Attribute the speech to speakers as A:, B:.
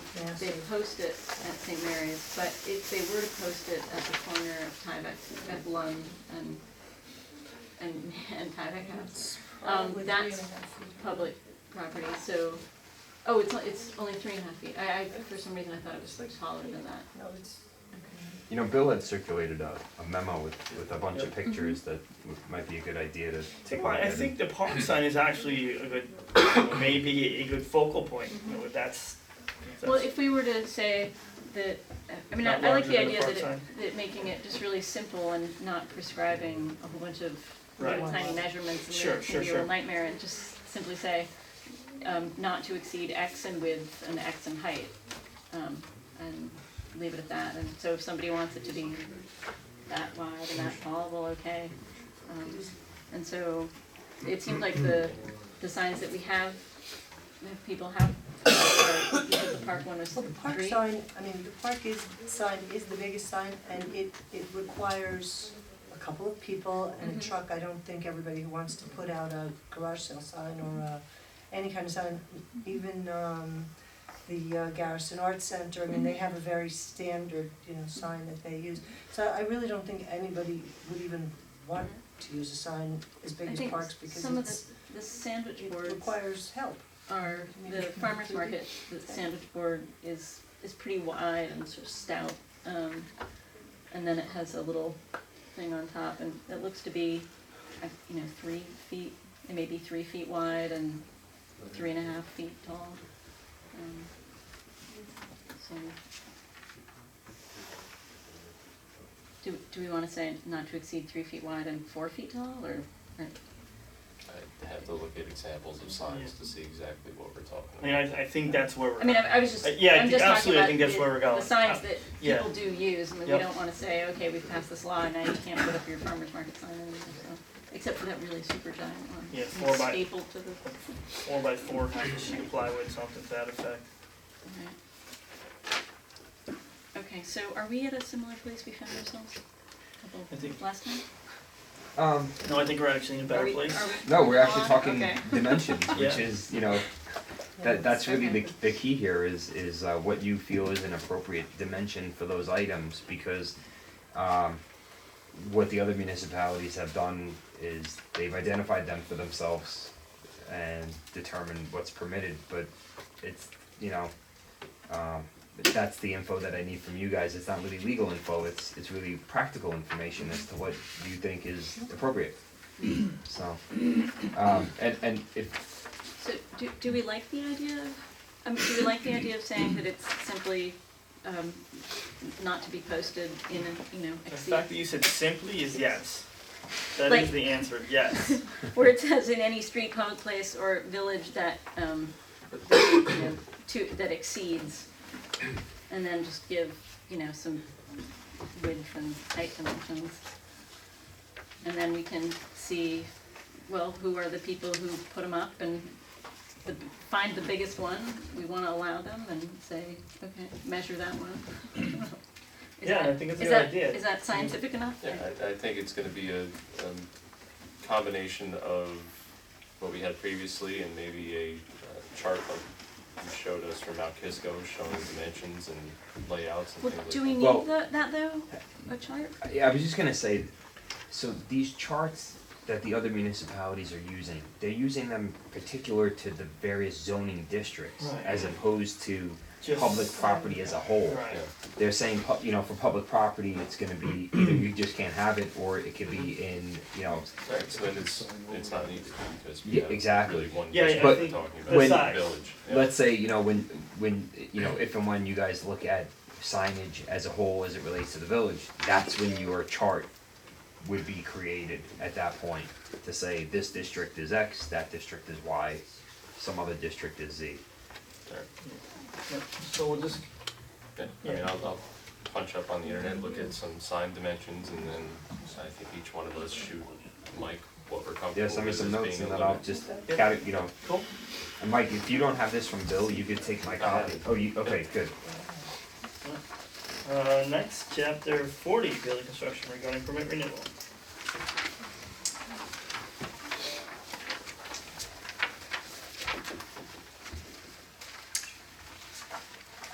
A: Yes.
B: They post it at St. Mary's, but if they were to post it at the corner of Tyvek, at Lund and, and, and Tyvek House, um,
A: Probably
B: that's
A: three and a half feet.
B: public property, so, oh, it's, on- it's only three and a half feet. I, I, for some reason, I thought it was like taller than that.
A: No, it's,
C: You know, Bill had circulated a, a memo with, with a bunch of pictures that w- might be a good idea to take a
D: Well,
C: look at.
D: I
C: and-
D: think the park sign is actually a good, you know, maybe a good focal point, you know, if that's. if
B: Well,
D: that's-
B: if we were to say that, I mean, I
D: Not
B: I like
D: larger
B: the
D: than the
B: idea that
D: front
B: it, that making it just really simple and not prescribing a whole bunch of little
D: Right.
B: tiny measurements and
D: Sure,
B: then it
D: sure,
B: can be a real
D: sure.
B: nightmare and just simply say, um, not to exceed X in width and X in height. Um, and leave it at that, and so if somebody wants it to be that wide and that tall, well, okay. Um, and so it seemed like the, the signs that we have, that people have, are, you said the park one was
A: well, the park
B: three?
A: sign, I mean, the park is, sign is the biggest sign, and it, it requires a couple of people and a
B: Mhm.
A: truck. I don't think everybody who wants to put out a garage sale sign or a, any kind of sign, even, um, the uh, Garrison Arts Center, I mean, they have a very standard, you know, sign that they use. So I really don't think anybody would even want to use a sign as big
B: I
A: as
B: think
A: parks, because
B: some of the,
A: it's,
B: the sandwich
A: it
B: boards
A: requires help.
B: are, the farmer's market, the sandwich board is, is pretty wide and sort of stout. Um, and then it has a little thing on top and it looks to be, uh, you know, three feet, it may be three feet wide and three and a half feet tall. Um, So. Do, do we wanna say not to exceed three feet wide and four feet tall or, or
E: I'd have to look at examples of signs to see exactly what we're talking
D: I
E: about.
D: mean, I, I think that's where we're.
B: I mean, I, I was just,
D: Uh,
B: I'm
D: yeah, I think-
B: just talking
D: absolutely, I
B: about
D: think that's
B: the-
D: where we're
B: The
D: going.
B: signs
D: Uh,
B: that
D: yeah.
B: people do use, I mean, we
D: Yep.
B: don't wanna say, okay, we've passed this law, and now you can't put up your farmer's market sign anymore, so, except for that really super giant one.
D: Yeah,
B: It's
D: four by-
B: Stapled to the,
D: Four by four kind of sheet plywood, something to that effect.
B: alright. Okay, so are we at a similar place we found ourselves? Couple-
D: I think-
B: Last time?
C: Um,
D: No, I think we're actually in a
B: Are
D: better
B: we-
D: place.
B: are we-
C: no, we're actually
B: on?
C: talking
B: Okay.
C: dimensions, which
D: Yeah.
C: is, you know, that, that's really the,
B: Okay.
C: the key here is, is uh, what you feel is an appropriate dimension for those items, because, um, what the other municipalities have done is they've identified them for themselves and determined what's permitted, but it's, you know, um, that's the info that I need from you guys, it's not really legal info, it's, it's really practical information as to what you think is appropriate. So, um, and, and if,
B: So, do, do we like the idea of, I mean, do we like the idea of saying that it's simply, um, not to be posted in a, you know,
D: The
B: exceed?
D: fact that you said simply is yes. That
B: Like-
D: is the answer, yes.
B: Where it says in any street, public place, or village that, um, you know, to, that exceeds. And then just give, you know, some width and height dimensions. And then we can see, well, who are the people who put them up and the, find the biggest one, we wanna allow them and say, okay, measure that one. Is
D: Yeah, I
B: that-
D: think it's a
B: is
D: good
B: that-
D: idea.
B: Is that scientific enough?
E: Yeah, I, I think it's gonna be a, um, combination of what we had previously and maybe a uh, chart like you showed us from Mount Kisco showing dimensions and layouts and
B: Well,
E: things like that.
B: do we
C: Well-
B: need the, that though, a chart?
C: yeah, I was just gonna say, so these charts that the other municipalities are using, they're using them particular to the various zoning districts
D: Right.
C: as opposed to
D: Just-
C: public property as a whole.
D: Right.
C: They're saying, pu- you know, for public property, it's gonna be, either you just can't have it, or it could be in, you know,
E: Right, so then it's, it's not needed because we
C: Yeah,
E: have
C: exactly.
E: really one
D: Yeah, yeah,
E: district
C: I
E: we're
D: think
E: talking
D: the
E: about, the village.
D: size.
E: Yeah.
C: let's say, you know, when, when, you know, if and when you guys look at signage as a whole as it relates to the village, that's when your chart would be created at that point to say this district is X, that district is Y, some other district is Z.
E: There.
D: So we'll just.
E: Yeah, I mean, I'll, I'll punch up on the internet, look at some sign dimensions, and then I think each one of us shoot Mike what we're comfortable
C: Yeah,
E: with as
C: send
E: being
C: me
E: a
C: some notes and then I'll
E: limit.
C: just, got it, you know,
D: Cool.
C: and Mike, if you don't have this from Bill, you could take my copy. Oh, you, okay, good.
D: Uh, next, chapter forty, building construction regarding permit renewal.